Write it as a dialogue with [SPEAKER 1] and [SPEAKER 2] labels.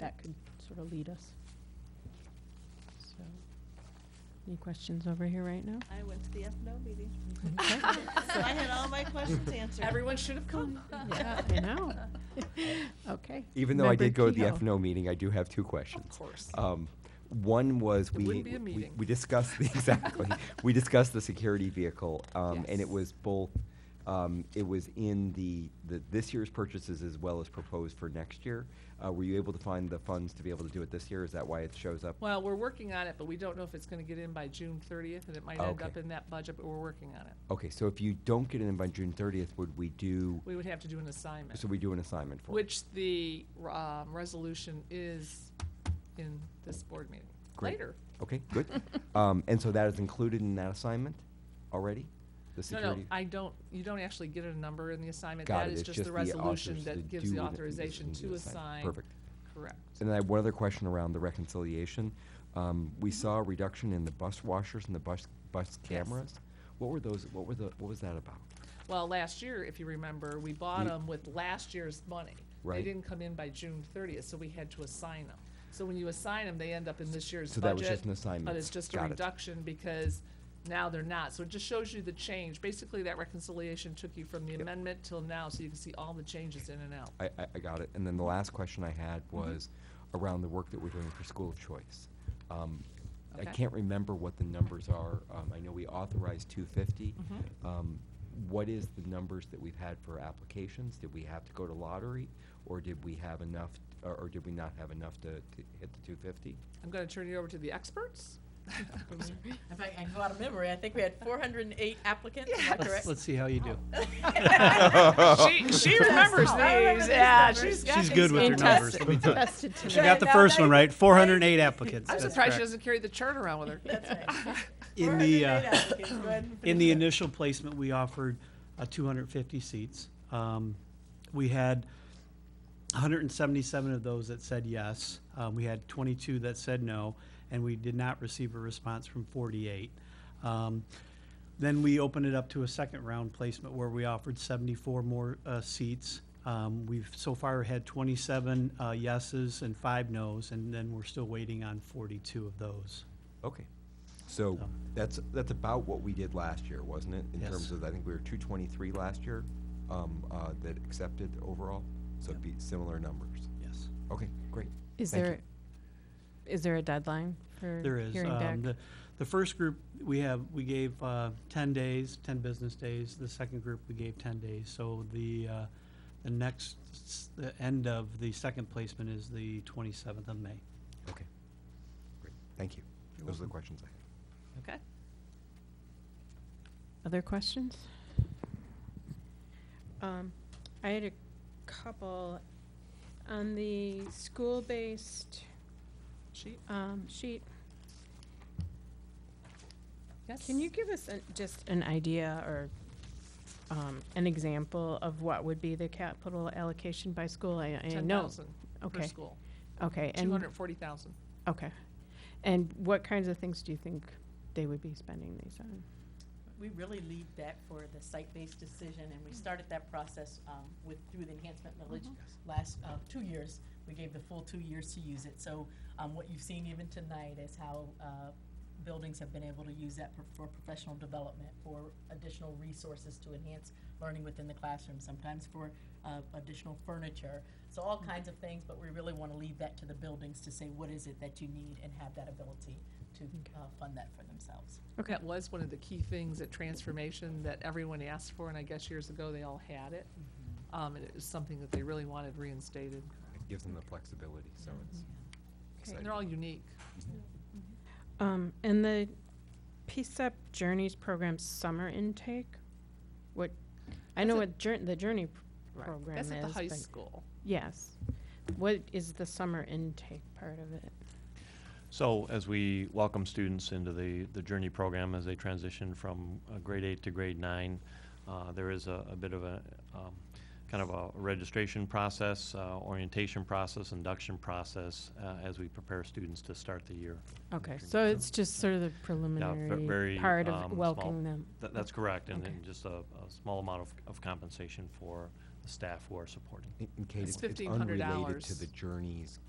[SPEAKER 1] that could sort of lead us. So, Any questions over here right now?
[SPEAKER 2] I went to the FNO meeting,
[SPEAKER 1] Okay.
[SPEAKER 2] so I had all my questions answered.
[SPEAKER 3] Everyone should have come.
[SPEAKER 1] Yeah, I know. Okay.
[SPEAKER 4] Even though I
[SPEAKER 1] Member
[SPEAKER 4] did go to the
[SPEAKER 1] Kehoe.
[SPEAKER 4] FNO meeting, I do have two questions.
[SPEAKER 3] Of course.
[SPEAKER 4] Um, One was,
[SPEAKER 3] It
[SPEAKER 4] we,
[SPEAKER 3] wouldn't be a
[SPEAKER 4] we-
[SPEAKER 3] meeting.
[SPEAKER 4] we discussed, exactly, we discussed the security vehicle, um, and it
[SPEAKER 3] Yes.
[SPEAKER 4] was both, um, it was in the, the, this year's purchases as well as proposed for next year. Uh, Were you able to find the funds to be able to do it this year? Is that why it shows up?
[SPEAKER 3] Well, we're working on it, but we don't know if it's gonna get in by June thirtieth, and it might end
[SPEAKER 4] Okay.
[SPEAKER 3] up in that budget, but we're working on it.
[SPEAKER 4] Okay, so if you don't get it in by June thirtieth, would we do,
[SPEAKER 3] We would have to do an assignment,
[SPEAKER 4] so we do an assignment for it?
[SPEAKER 3] which the, um, resolution is in this board meeting,
[SPEAKER 4] Great.
[SPEAKER 3] later.
[SPEAKER 4] Okay, good. Um, And so that is included in that assignment already? The
[SPEAKER 3] No, no,
[SPEAKER 4] security?
[SPEAKER 3] I don't, you don't actually get a number in the assignment,
[SPEAKER 4] Got
[SPEAKER 3] that
[SPEAKER 4] it.
[SPEAKER 3] is
[SPEAKER 4] It's
[SPEAKER 3] just the
[SPEAKER 4] authors-
[SPEAKER 3] resolution that gives the
[SPEAKER 4] do-
[SPEAKER 3] authorization
[SPEAKER 4] gives the
[SPEAKER 3] to assign.
[SPEAKER 4] Perfect.
[SPEAKER 3] Correct.
[SPEAKER 4] And then I have one other question around the reconciliation. Um, we saw a reduction in the bus washers and the bus, bus cameras. What were those, what were the, what was that about?
[SPEAKER 3] Well, last year, if you remember, we bought
[SPEAKER 4] We-
[SPEAKER 3] them with last year's money. They
[SPEAKER 4] Right.
[SPEAKER 3] didn't come in by June thirtieth, so we had to assign them. So when you assign them, they end up in this year's
[SPEAKER 4] So
[SPEAKER 3] budget.
[SPEAKER 4] that was just an assignment.
[SPEAKER 3] But it's just a
[SPEAKER 4] Got it.
[SPEAKER 3] reduction because now they're not. So it just shows you the change. Basically, that reconciliation took you from the amendment till now, so you can see all the changes in and out.
[SPEAKER 4] I, I, I got it. And then the last question I had
[SPEAKER 3] Mm-hmm.
[SPEAKER 4] was around the work that we're doing for school of choice. Um, I
[SPEAKER 3] Okay.
[SPEAKER 4] can't remember what the numbers are. Um, I know we authorized two fifty.
[SPEAKER 3] Mm-hmm.
[SPEAKER 5] Mm-hmm.
[SPEAKER 4] Um, what is the numbers that we've had for applications? Did we have to go to lottery? Or did we have enough, or, or did we not have enough to, to hit the two fifty?
[SPEAKER 3] I'm gonna turn you over to the experts.
[SPEAKER 6] If I can go out of memory, I think we had 408 applicants, is that correct?
[SPEAKER 7] Let's see how you do.
[SPEAKER 3] She, she remembers
[SPEAKER 6] I remember
[SPEAKER 3] these,
[SPEAKER 6] these
[SPEAKER 3] yeah,
[SPEAKER 6] numbers.
[SPEAKER 3] she's got
[SPEAKER 7] She's
[SPEAKER 3] these
[SPEAKER 7] good with her
[SPEAKER 3] numbers.
[SPEAKER 7] numbers,
[SPEAKER 6] Fantastic.
[SPEAKER 7] let me tell you.
[SPEAKER 1] Tested tonight.
[SPEAKER 7] She got the first one right, four hundred and eight applicants.
[SPEAKER 3] I'm
[SPEAKER 7] that's
[SPEAKER 3] surprised she
[SPEAKER 7] correct.
[SPEAKER 3] doesn't carry the chart around with her.
[SPEAKER 6] That's right.
[SPEAKER 7] In the,
[SPEAKER 6] 408
[SPEAKER 7] uh,
[SPEAKER 6] applicants. Go ahead and
[SPEAKER 7] in
[SPEAKER 6] finish
[SPEAKER 7] the
[SPEAKER 6] up.
[SPEAKER 7] initial placement, we offered uh, two hundred and fifty seats. Um, We had hundred and seventy-seven of those that said yes. Uh, We had twenty-two that said no, and we did not receive a response from forty-eight. Um, Then we opened it up to a second round placement where we offered 74 more uh, seats. Um, We've so far had 27 uh, yeses and five nos, and then we're still waiting on 42 of those.
[SPEAKER 4] Okay. So that's, that's about what we did last year, wasn't it? In terms
[SPEAKER 7] Yes.
[SPEAKER 4] of, I think we were two twenty-three last year, um, uh, that accepted overall, so it'd be similar numbers.
[SPEAKER 7] Yes.
[SPEAKER 4] Okay, great.
[SPEAKER 1] Is
[SPEAKER 4] Thank you.
[SPEAKER 1] there, is there a deadline for
[SPEAKER 7] There is.
[SPEAKER 1] hearing
[SPEAKER 7] um,
[SPEAKER 1] back?
[SPEAKER 7] the- The first group, we have, we gave uh, 10 days, 10 business days. The second group, we gave 10 days. So the, uh, the next, s- the end of the second placement is the 27th of May.
[SPEAKER 4] Okay. Great, thank you. Those are the questions I had.
[SPEAKER 3] Okay.
[SPEAKER 1] Other questions?
[SPEAKER 5] Um, I had a couple. On the school-based,
[SPEAKER 3] She,
[SPEAKER 5] um, sheet,
[SPEAKER 3] yes?
[SPEAKER 5] can you give us an- just an idea or, um, an example of what would be the capital allocation by school? I, I
[SPEAKER 3] Ten
[SPEAKER 5] know.
[SPEAKER 3] thousand
[SPEAKER 5] Uh,
[SPEAKER 3] per
[SPEAKER 5] Okay,
[SPEAKER 3] school,
[SPEAKER 5] okay.
[SPEAKER 3] two
[SPEAKER 5] And,
[SPEAKER 3] hundred forty thousand.
[SPEAKER 5] okay. And what kinds of things do you think they would be spending these on?
[SPEAKER 6] We really lead that for the site-based decision, and we started that process um, with, through the enhancement millage last uh, two years. We gave the full two years to use it. So um, what you've seen even tonight is how uh, buildings have been able to use that for- for professional development, for additional resources to enhance learning within the classroom, sometimes for uh, additional furniture. So all kinds of things, but we really want to leave that to the buildings to say, what is it that you need, and have that ability to uh, fund that for themselves.
[SPEAKER 3] That was one of the key things at transformation that everyone asked for, and I guess years ago, they all had it. Um, and it was something that they really wanted reinstated.
[SPEAKER 4] It gives them the flexibility, so it's
[SPEAKER 3] And
[SPEAKER 4] exciting.
[SPEAKER 3] they're all unique.
[SPEAKER 5] Um, and the PSEP Journeys Program Summer Intake, what, I know
[SPEAKER 3] That's
[SPEAKER 5] what jour- the Journey p- program is.
[SPEAKER 3] That's at the high
[SPEAKER 5] but-
[SPEAKER 3] school.
[SPEAKER 5] Yes. What is the summer intake part of it?
[SPEAKER 8] So as we welcome students into the, the Journey program as they transition from uh, grade eight to grade nine, uh, there is a, a bit of a, um, kind of a registration process, uh, orientation process, induction process, uh, as we prepare students to start the year.
[SPEAKER 5] Okay, so it's just sort of the preliminary
[SPEAKER 8] very,
[SPEAKER 5] part
[SPEAKER 8] um,
[SPEAKER 5] of
[SPEAKER 8] small.
[SPEAKER 5] welcoming them.
[SPEAKER 8] That, that's correct, and
[SPEAKER 5] Okay.
[SPEAKER 8] then just a, a small amount of, of compensation for the staff who are supporting.
[SPEAKER 4] And- and Kate,
[SPEAKER 3] It's
[SPEAKER 4] it's it's
[SPEAKER 3] $1,500
[SPEAKER 4] unrelated to the journeys